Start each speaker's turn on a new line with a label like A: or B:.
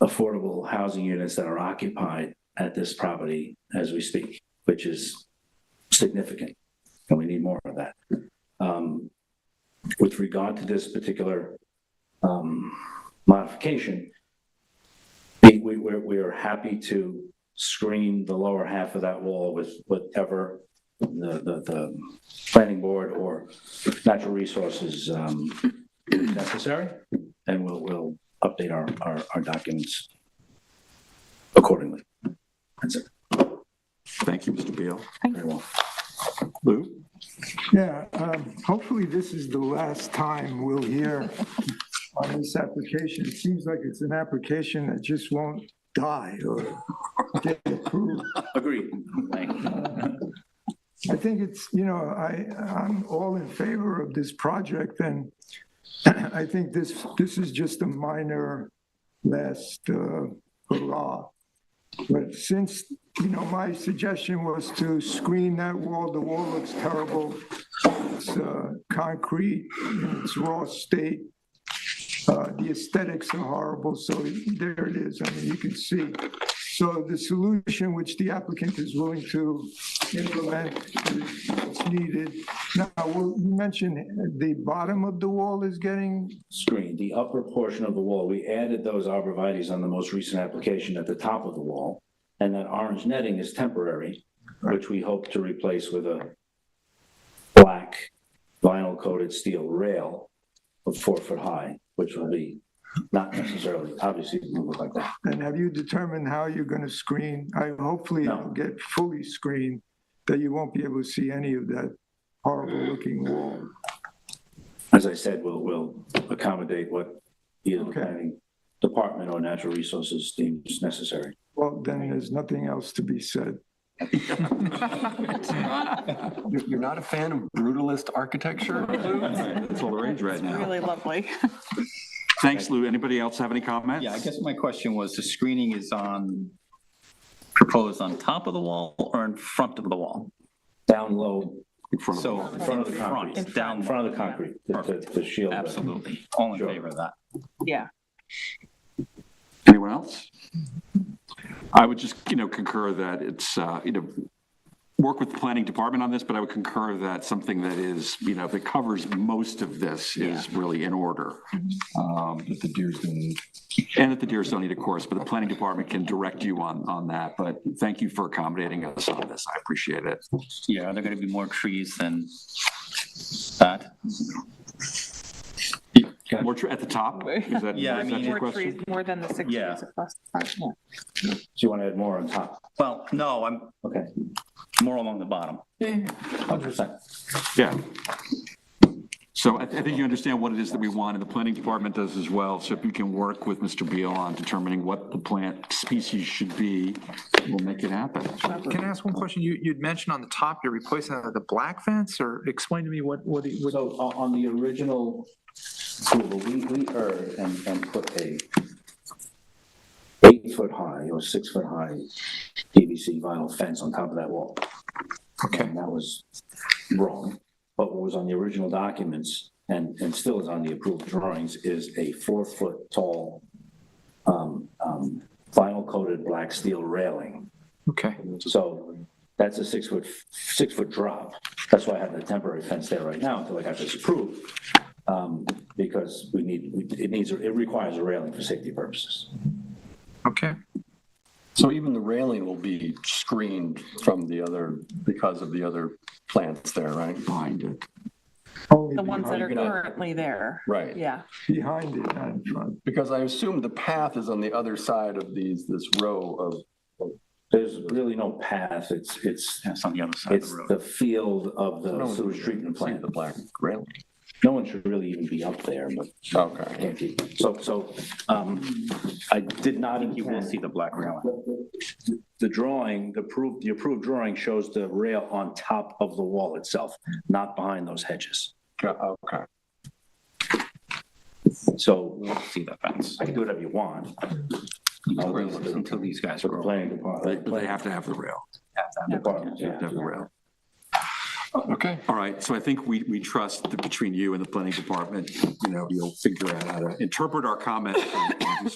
A: affordable housing units that are occupied at this property as we speak, which is significant, and we need more of that. Um, With regard to this particular um, modification, we, we, we're- we are happy to screen the lower half of that wall with whatever the, the, the planning board or natural resources um, necessary, and we'll, we'll update our, our, our documents accordingly. That's it,
B: Thank you, Mr. Beal.
A: very well.
B: Lou?
C: Yeah, um, hopefully this is the last time we'll hear on this application. It seems like it's an application that just won't die or get approved.
A: Agreed.
C: I think it's, you know, I, I'm all in favor of this project, and I think this, this is just a minor last uh, hurrah. But since, you know, my suggestion was to screen that wall, the wall looks terrible. It's uh, concrete, in it's raw state. Uh, The aesthetics are horrible, so there it is, I mean, you can see. So the solution which the applicant is willing to implement is needed. Now, well, you mentioned the bottom of the wall is getting,
A: Screen, the upper portion of the wall, we added those arborvitae's on the most recent application at the top of the wall, and that orange netting is temporary, which we hope to replace with a black vinyl coated steel rail of four foot high, which will be not necessarily, obviously, it won't look like that.
C: and have you determined how you're going to screen? I hopefully
A: No.
C: it'll get fully screened, that you won't be able to see any of that horrible-looking wall.
A: As I said, we'll, we'll accommodate what either the
C: Okay.
A: planning department or natural resources deems necessary.
C: Well, then there's nothing else to be said.
D: You're you're not a fan of brutalist architecture?
B: It's all the rage right now.
E: Really lovely.
B: Thanks, Lou. Anybody else have any comments?
F: Yeah, I guess my question was, the screening is on, proposed on top of the wall or in front of the wall?
A: Down low,
B: In front of-
F: So in front of the
A: concrete.
F: front, down,
A: in front of the concrete, to- to, to shield. the-
F: absolutely, all in
A: Sure.
F: favor of that.
E: Yeah.
B: Anyone else? I would just, you know, concur that it's, uh, you know, work with the planning department on this, but I would concur that something that is, you know, that covers most of this is really in order. Um,
D: That the deers didn't need.
B: And that the deers don't need a course, but the planning department can direct you on, on that. But thank you for accommodating us on this. I appreciate it.
F: Yeah, are there going to be more trees than that?
B: More tr- at the top? Is that-
F: Yeah, I
B: is that
F: mean,
B: your
F: More
E: More
B: question?
E: trees, more than the six
F: Yeah.
E: trees across the front. yeah.
A: Do you want to add more on top?
F: Well, no, I'm
A: Okay.
F: more along the bottom.
A: Hundred percent.
B: Yeah. So I, I think you understand what it is that we want, and the planning department does as well. So if you can work with Mr. Beal on determining what the plant species should be, we'll make it happen.
G: Can I ask one question? You, you'd mentioned on the top, you're replacing that with a black fence, or explain to me what, what, what-
A: So on, on the original approval, we, we erred and, and put a eight foot high or six foot high PVC vinyl fence on top of that wall.
G: okay,
A: And that was wrong. But what was on the original documents and, and still is on the approved drawings is a four foot tall um, um, vinyl coated black steel railing.
G: okay.
A: So that's a six foot, six foot drop. That's why I have the temporary fence there right now until I got this approved. Um, Because we need, we- it needs, it requires a railing for safety purposes.
G: Okay,
D: So even the railing will be screened from the other, because of the other plants there, right?
B: Find it.
C: Only
E: The ones that
C: behind-
E: are currently there.
D: Right.
E: Yeah.
C: Behind it, not in front.
D: Because I assume the path is on the other side of these, this row of,
A: There's really no path. It's, it's,
F: That's on the other side of
A: it's
F: the road.
A: the field of
D: No
A: the
D: one's
A: sewage treatment
D: see
A: plant.
D: the black railing.
A: No one should really even be up there, but
D: Okay.
A: can't be. So, so um, I did not
F: You will see the black railing.
A: The- The drawing, the approved, the approved drawing shows the rail on top of the wall itself, not behind those hedges.
D: Go- Okay.
A: So
F: We'll see the fence
A: I can do whatever you want.
F: until these
A: But
F: guys
A: the
F: grow. up.
A: planning department,
B: But they have to have the rail.
A: department,
B: They have to have the rail.
D: Okay.
B: All right, so I think we, we trust that between you and the planning department, you know, you'll figure out how to interpret our comments and do